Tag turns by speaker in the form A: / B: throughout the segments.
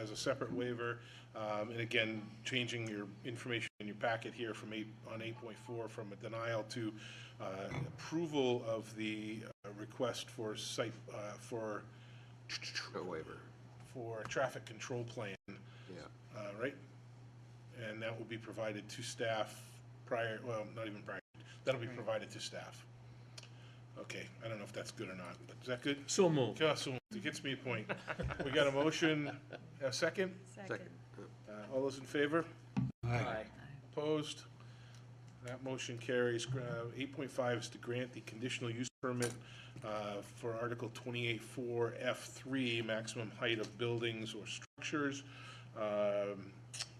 A: as a separate waiver. Um, And again, changing your information in your packet here from eight, on 8.4, from a denial to uh, approval of the uh, request for site, uh, for,
B: A waiver,
A: for a traffic control plan,
B: yeah.
A: uh, right? And that will be provided to staff prior, well, not even prior, that'll be provided to staff. Okay, I don't know if that's good or not, but is that good?
C: So moved.
A: Yeah, so it gets me a point. We got a motion, a second?
B: Second.
A: Uh, All those in favor?
C: Aye.
A: Opposed? That motion carries. uh, Eight point five is to grant the conditional use permit uh, for Article twenty-eight four F three, maximum height of buildings or structures um,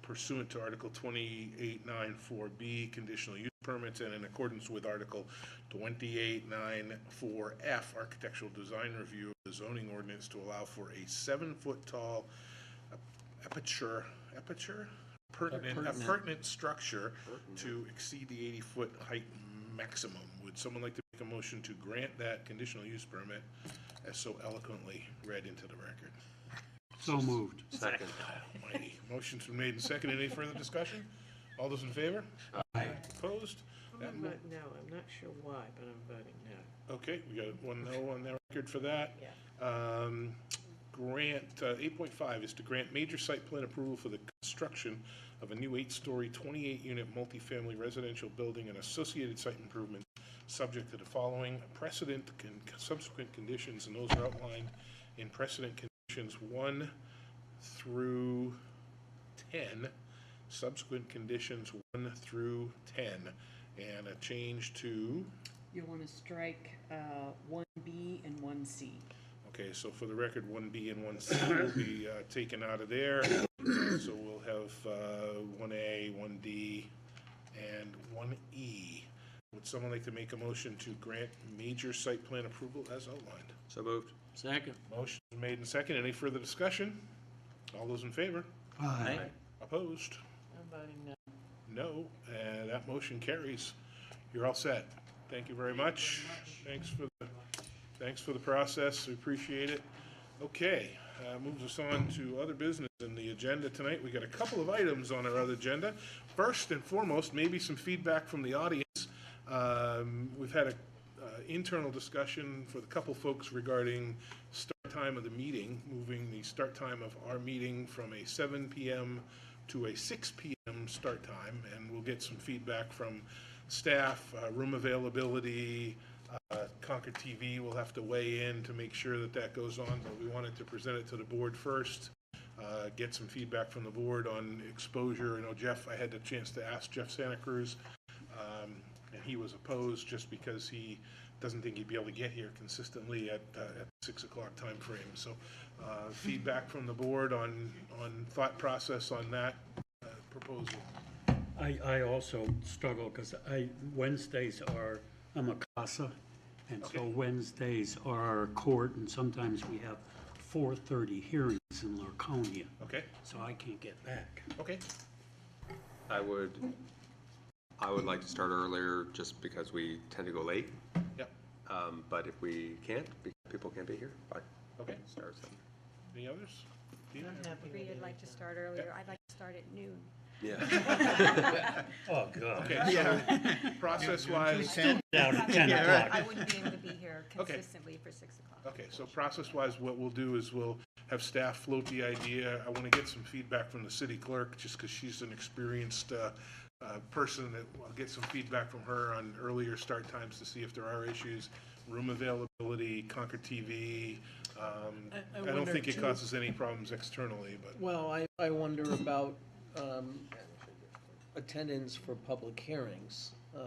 A: pursuant to Article twenty-eight nine four B, conditional use permits, and in accordance with Article twenty-eight nine four F, architectural design review of the zoning ordinance to allow for a seven-foot tall aperture, aperture? Pertinent, a pertinent structure to exceed the eighty-foot height maximum. Would someone like to make a motion to grant that conditional use permit as so eloquently read into the record?
D: So moved.
B: Second,
A: Almighty. Motion's been made and seconded. Any further discussion? All those in favor? Aye. Opposed? That
E: I'm
A: mo-
E: vote no, I'm not sure why, but I'm voting no.
A: Okay, we got one no on the record for that.
E: Yeah.
A: Um, Grant, uh, eight point five is to grant major site plan approval for the construction of a new eight-story, twenty-eight-unit multifamily residential building and associated site improvements, subject to the following precedent and subsequent conditions, and those are outlined in precedent conditions one through ten, subsequent conditions one through ten, and a change to
F: You'll want to strike uh, one B and one C.
A: Okay, so for the record, one B and one C will be uh, taken out of there. So we'll have uh, one A, one D, and one E. Would someone like to make a motion to grant major site plan approval as outlined?
B: so moved.
C: Second.
A: Motion made and second. Any further discussion? All those in favor?
D: Aye.
A: Opposed?
E: I'm voting no.
A: No, and that motion carries. You're all set. Thank you very much. Thanks for the, thanks for the process, we appreciate it. Okay, uh, moves us on to other business in the agenda tonight. We got a couple of items on our other agenda. First and foremost, maybe some feedback from the audience. Um, We've had a uh, internal discussion for the couple folks regarding start time of the meeting, moving the start time of our meeting from a 7 PM to a 6 PM start time, and we'll get some feedback from staff, uh, room availability, uh, Concord TV will have to weigh in to make sure that that goes on, but we wanted to present it to the board first uh, get some feedback from the board on exposure. I know Jeff, I had the chance to ask Jeff Santa Cruz, um, and he was opposed just because he doesn't think he'd be able to get here consistently at, uh, at six o'clock time frame. So, uh, feedback from the board on, on thought process on that uh, proposal.
D: I, I also struggle because I, Wednesdays are, I'm a CASA. And so
A: Okay.
D: Wednesdays are our court and sometimes we have 4:30 hearings in Laconia.
A: Okay,
D: So I can't get back.
A: okay,
B: I would, I would like to start earlier just because we tend to go late.
A: yep,
B: Um, but if we can't, be- people can't be here, fine,
A: okay.
B: start something.
A: Any others? Dina?
E: I'm happy
G: Three,
E: with
G: I'd like to start earlier. I'd like to start at noon.
B: Yeah.
C: Oh, God.
A: Okay, so process-wise,
D: Down at 10 o'clock.
G: I wouldn't be able to be here
A: Okay. Oh.
G: consistently for six o'clock.
A: Okay, so process-wise, what we'll do is we'll have staff float the idea. I want to get some feedback from the city clerk, just because she's an experienced uh, uh, person, that I'll get some feedback from her on earlier start times to see if there are issues, room availability, Concord TV. um,
E: I- I
A: I don't
E: wonder
A: think it
E: too-
A: causes any problems externally, but,
H: Well, I, I wonder about um, attendance for public hearings. uh,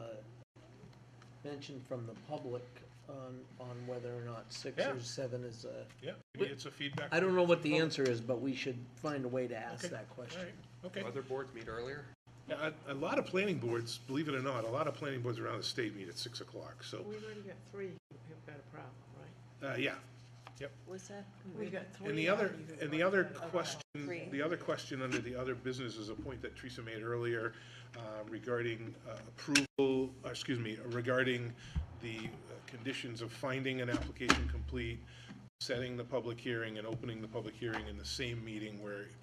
H: Mention from the public on, on whether or not six
A: Yeah.
H: or seven is a,
A: yeah, maybe it's a feedback.
H: I don't know what the answer is, but we should find a way to ask that
A: All
H: question.
A: right, okay.
B: Other boards meet earlier?
A: Yeah, A a lot of planning boards, believe it or not, a lot of planning boards around the state meet at 6 o'clock, so,
E: We've already got three who've got a problem, right?
A: uh, yeah.
F: Was that?
E: We've got three.
A: And the other,
E: already who've
A: and the
E: already
A: other
E: got a problem.
A: question,
F: Three.
A: the other question under the other business is a point that Teresa made earlier uh, regarding uh, approval, uh, excuse me, regarding the uh, conditions of finding an application complete, setting the public hearing and opening the public hearing in the same meeting where